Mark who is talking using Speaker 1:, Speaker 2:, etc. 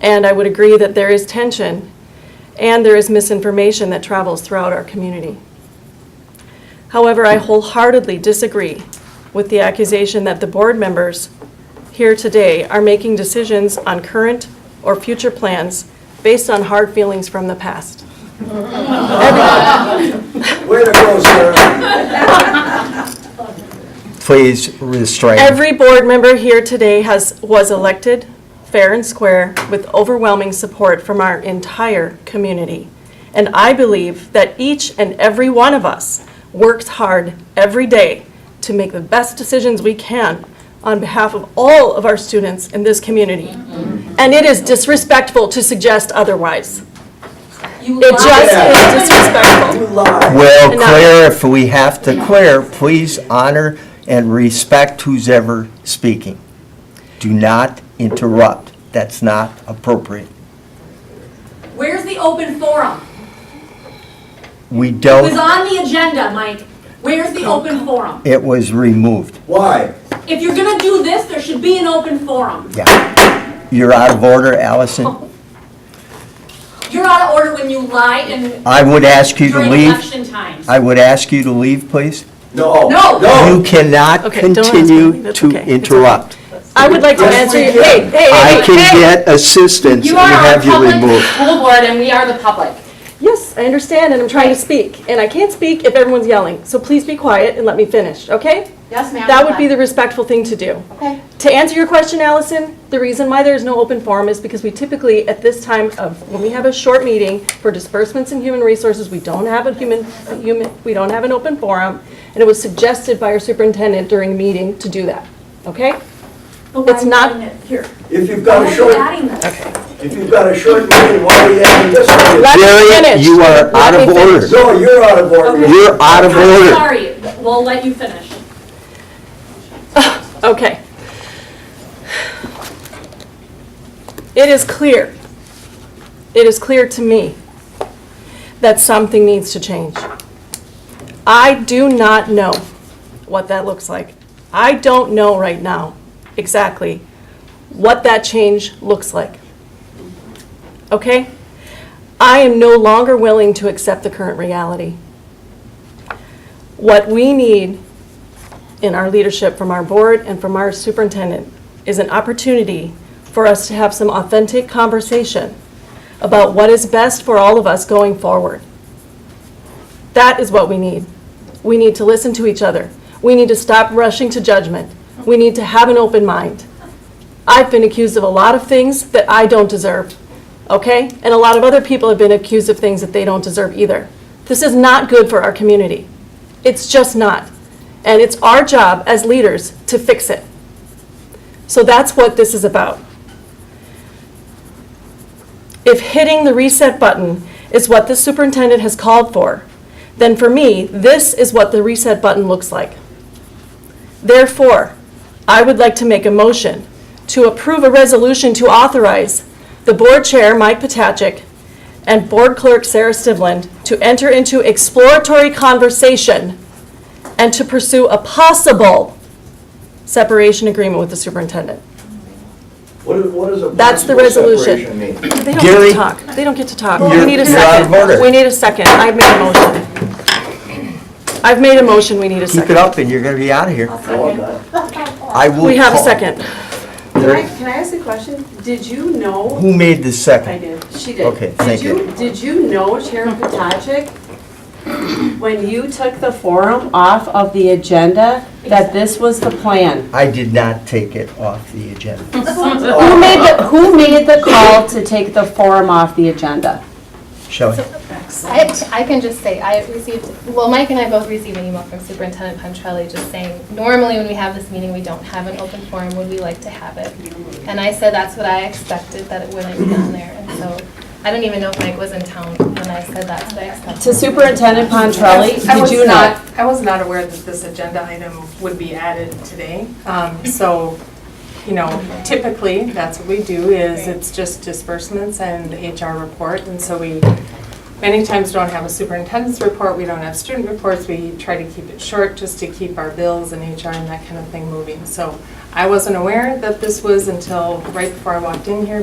Speaker 1: And I would agree that there is tension and there is misinformation that travels throughout our community. However, I wholeheartedly disagree with the accusation that the board members here today are making decisions on current or future plans based on hard feelings from the past.
Speaker 2: Way to go, sir.
Speaker 3: Please restrain.
Speaker 1: Every board member here today has, was elected fair and square with overwhelming support from our entire community. And I believe that each and every one of us works hard every day to make the best decisions we can on behalf of all of our students in this community. And it is disrespectful to suggest otherwise.
Speaker 4: You
Speaker 1: It just is disrespectful.
Speaker 2: You lied.
Speaker 3: Well,
Speaker 1: Enough.
Speaker 3: Claire, if we have to, Claire, please honor and respect who's ever speaking. Do not interrupt. That's not appropriate.
Speaker 4: Where's the open forum?
Speaker 3: We
Speaker 4: It was
Speaker 3: don't,
Speaker 4: on the agenda, Mike. Where's the open forum?
Speaker 3: it was removed.
Speaker 2: Why?
Speaker 4: If you're gonna do this, there should be an open forum.
Speaker 3: Yeah. You're out of order,
Speaker 1: Oh.
Speaker 3: Allison.
Speaker 4: You're out of order when you lie and
Speaker 3: I would ask you to
Speaker 4: during
Speaker 3: leave.
Speaker 4: election times. Oh,
Speaker 3: I would ask you to leave, please.
Speaker 2: No.
Speaker 4: No.
Speaker 3: You
Speaker 2: No.
Speaker 3: cannot
Speaker 1: Okay, don't ask me.
Speaker 3: continue
Speaker 1: That's
Speaker 3: to
Speaker 1: okay. It's
Speaker 3: interrupt.
Speaker 1: I would like to answer, you. hey, hey, hey.
Speaker 3: I can
Speaker 1: hey.
Speaker 3: get assistance
Speaker 5: You
Speaker 3: and
Speaker 5: are our
Speaker 3: have you
Speaker 5: public
Speaker 3: removed.
Speaker 5: school board and we are the public.
Speaker 1: Yes, I understand, and I'm trying to speak, and I can't speak if everyone's yelling, so please be quiet and let me finish, okay?
Speaker 5: Yes, ma'am.
Speaker 1: That would be the respectful thing to do.
Speaker 5: Okay.
Speaker 1: To answer your question, Allison, the reason why there's no open forum is because we typically, at this time of, when we have a short meeting for disbursements and human resources, we don't have a human, a human, we don't have an open forum, and it was suggested by our superintendent during a meeting to do that, okay? It's not,
Speaker 4: Here.
Speaker 2: If you've got a
Speaker 4: Why are you
Speaker 2: short,
Speaker 4: adding this?
Speaker 2: if you've got a short meeting, why are you having this one?
Speaker 1: Let me
Speaker 3: Harriet,
Speaker 1: finish.
Speaker 3: you are
Speaker 1: Let
Speaker 3: out
Speaker 1: me
Speaker 3: of
Speaker 1: finish.
Speaker 3: order.
Speaker 2: No, you're out of order.
Speaker 3: You're out of
Speaker 4: I'm
Speaker 3: order.
Speaker 4: sorry, we'll let you finish.
Speaker 1: Okay. It is clear, it is clear to me that something needs to change. I do not know what that looks like. I don't know right now exactly what that change looks like. Okay? I am no longer willing to accept the current reality. What we need in our leadership from our board and from our superintendent is an opportunity for us to have some authentic conversation about what is best for all of us going forward. That is what we need. We need to listen to each other. We need to stop rushing to judgment. We need to have an open mind. I've been accused of a lot of things that I don't deserve, okay? And a lot of other people have been accused of things that they don't deserve either. This is not good for our community. It's just not. And it's our job as leaders to fix it. So that's what this is about. If hitting the reset button is what the superintendent has called for, then for me, this is what the reset button looks like. Therefore, I would like to make a motion to approve a resolution to authorize the board chair, Mike Potachik, and board clerk, Sarah Stivland, to enter into exploratory conversation and to pursue a possible separation agreement with the superintendent.
Speaker 2: What is, what is a
Speaker 1: That's the
Speaker 2: possible
Speaker 1: resolution.
Speaker 2: separation mean?
Speaker 1: They don't get
Speaker 3: Gary.
Speaker 1: to talk. They don't get to talk.
Speaker 3: You're-
Speaker 1: We need a
Speaker 3: you're out of
Speaker 1: second.
Speaker 3: order.
Speaker 1: We need a second. I've made a motion. I've made a motion. We need a
Speaker 3: Keep it
Speaker 1: second.
Speaker 3: up and you're going to be out of here. I will
Speaker 1: We have a
Speaker 3: call.
Speaker 1: second.
Speaker 6: Can I, can I ask a question? Did you know,
Speaker 3: Who made the
Speaker 6: I
Speaker 3: second?
Speaker 6: did, she did.
Speaker 3: Okay, thank you.
Speaker 6: Did you, did you know, Chair Potajek, when you took the forum off of the agenda, that this was the plan?
Speaker 3: I did not take it off the agenda.
Speaker 6: Who made the, who made the call to take the forum off the agenda?
Speaker 3: Shelley,
Speaker 7: I, I can just say, I received, well, Mike and I both received an email from Superintendent Pontrelli just saying, normally when we have this meeting, we don't have an open forum, would we like to have it? And I said that's what I expected, that it wouldn't be on there, and so, I don't even know if Mike was in town when I said that's what I expected.
Speaker 6: To Superintendent Pontrelli,
Speaker 8: I
Speaker 6: did
Speaker 8: was
Speaker 6: you know?
Speaker 8: I was not aware that this agenda item would be added today. Um, So, you know, typically, that's what we do, is it's just disbursements and HR report. And so we, many times don't have a superintendent's report, we don't have student reports. We try to keep it short just to keep our bills and HR and that kind of thing moving. So I wasn't aware that this was until right before I walked in here,